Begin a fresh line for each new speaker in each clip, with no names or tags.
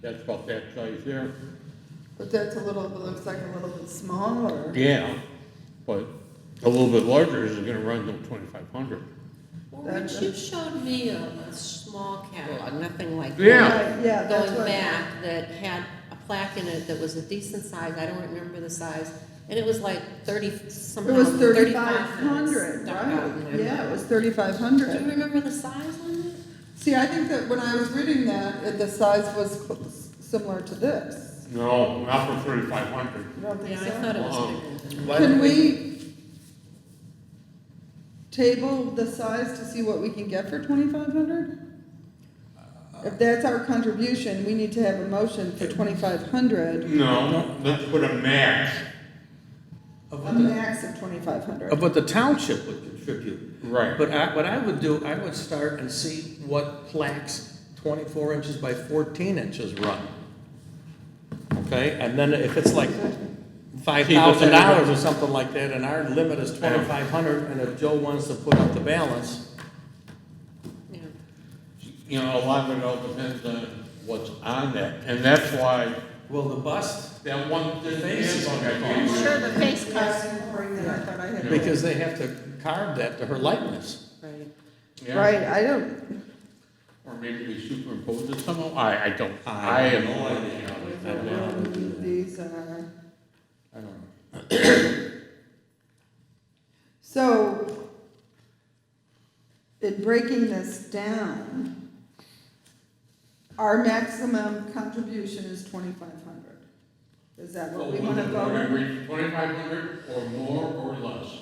That's about that size there.
But that's a little, it looks like a little bit smaller.
Yeah, but a little bit larger is gonna run to twenty-five hundred.
Well,
That's-
Rich, you showed me a, a small catalog, nothing like that.
Yeah.
Right, Yeah, that's
Going
what.
back, that had a plaque in it that was a decent size, I don't remember the size, and it was like thirty, somehow
It was
thirty-five.
thirty-five hundred,
stuck out in
right?
there.
Yeah, it was thirty-five
Do you
hundred.
remember the size on it?
See, I think that when I was reading that, it- the size was cl- similar to this.
No, not for thirty-five hundred.
You don't think
Yeah, I thought
so?
it was
Uh-uh.
bigger than that.
Can we table the size to see what we can get for twenty-five hundred? If that's our contribution, we need to have a motion for twenty-five hundred,
No, let's put a max.
Of
a
what the,
max of twenty-five hundred.
of what the township would contribute.
Right.
But I, what I would do, I would start and see what plaques twenty-four inches by fourteen inches run. Okay, and then if it's like five thousand dollars or something like that, and our limit is twenty-five hundred, and if Joe wants to put up the balance,
Yeah.
You know, a lot of it all depends on what's on that, and that's why
will the bust,
that one, the
Face is
handbook I
on
gave you.
the face cost. I thought I had.
because they have to carve that to her likeness.
Right.
Yeah.
Right, I don't,
Or maybe we superimpose it somehow, I, I don't, I have no idea.
um, these are,
I don't know.
so in breaking this down, our maximum contribution is twenty-five hundred. Is that what we wanna vote on?
Twenty-five hundred or more or less.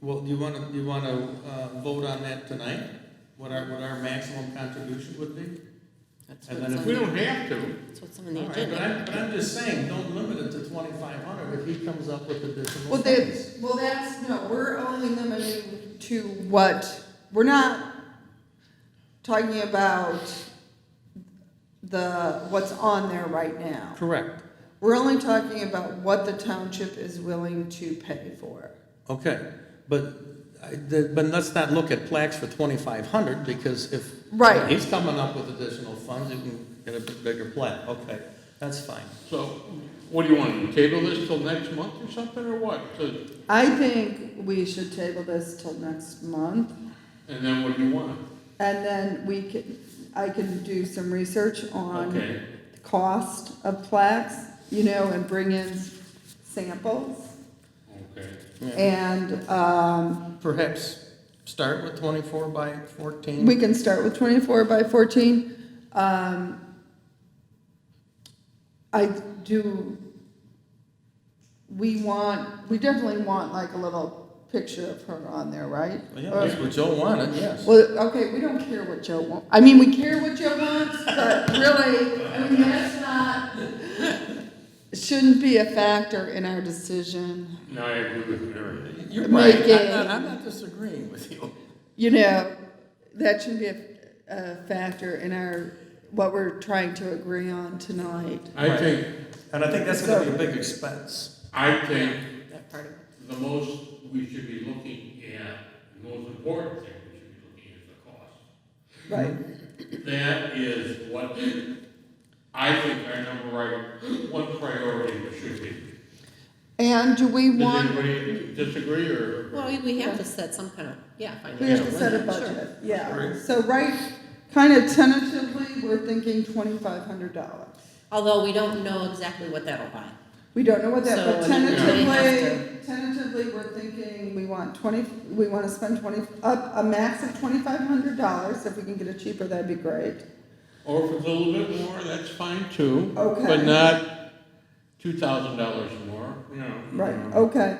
Well, do you wanna, do you wanna, uh, vote on that tonight? What our, what our maximum contribution would be?
That's
And
what's
then if
on
We
the-
don't have to.
That's what's on the
All right, but
agenda.
I'm, but I'm just saying, don't limit it to twenty-five hundred if he comes up with additional
Well,
funds.
that's, well, that's, no, we're only limited to what, we're not talking about the, what's on there right now.
Correct,
We're only talking about what the township is willing to pay for.
okay, but, I, the, but let's not look at plaques for twenty-five hundred, because if.
Right.
He's coming up with additional funds, you can get a bit bigger plaque, okay, that's fine.
So what do you want, to table this till next month or something or what? So-
I think we should table this till next month,
And then what do you want?
and then we can, I can do some research on
Okay,
cost of plaques, you know, and bring in samples,
okay.
Yeah.
and, um,
Perhaps start with twenty-four by fourteen.
we can start with twenty-four by fourteen. Um, I do, we want, we definitely want like a little picture of her on there, right?
Yeah,
Or-
that's what Joe wanted, yes.
Well, okay, we don't care what Joe wants. I mean, we care what Joe wants, but really, I mean, that's not, shouldn't be a factor in our decision.
Now I agree with Mary.
You're
Make
right,
it-
I'm not, I'm not disagreeing with you.
You know, that shouldn't be a, a factor in our, what we're trying to agree on tonight.
I
Right.
think,
And I think that's gonna be a big expense.
I think
That part of it.
the most we should be looking at, the most important thing we should be looking at is the cost.
Right.
That is what I think our number right, one priority should be.
And do we
Does
want,
anybody disagree or?
Well, we- we have to set some kind of, yeah, financial.
we have to set a
limit, sure.
budget, yeah.
Right.
So right, kind of tentatively, we're thinking twenty-five hundred dollars.
Although we don't know exactly what that'll buy.
We don't know what that, but
So, I mean, we have
tentatively, tentatively, we're thinking we want twenty, we wanna spend twenty, up, a max of twenty-five hundred dollars, if we can get it cheaper, that'd be great.
Or if it's a little bit more, that's fine too.
Okay.
But not two thousand dollars more, you know. Um,
Right,
Mm-hmm.
okay,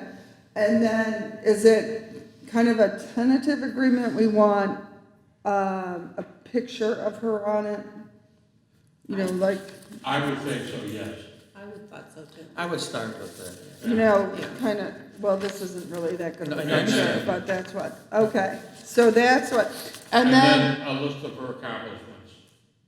and then, is it kind of a tentative agreement, we want, um, a picture of her on it? You know, like,
I would think so, yes.
I would thought so too.
I would start with that.
you know, kinda, well, this isn't really that good of a
No, I
picture,
understand.
but that's what, okay, so that's what, and then
then a list of her accomplishments.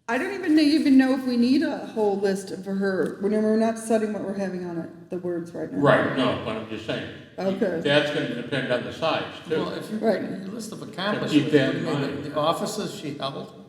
I don't even know, even know if we need a whole list for her. We're, we're not setting what we're having on it, the words right now.
Right, no, but I'm just saying.
Okay.
That's gonna depend on the size
Well,
too.
if you,
Right.
your list of
Keep
accomplishments,
that in
I mean, the-
mind.
the offices she held,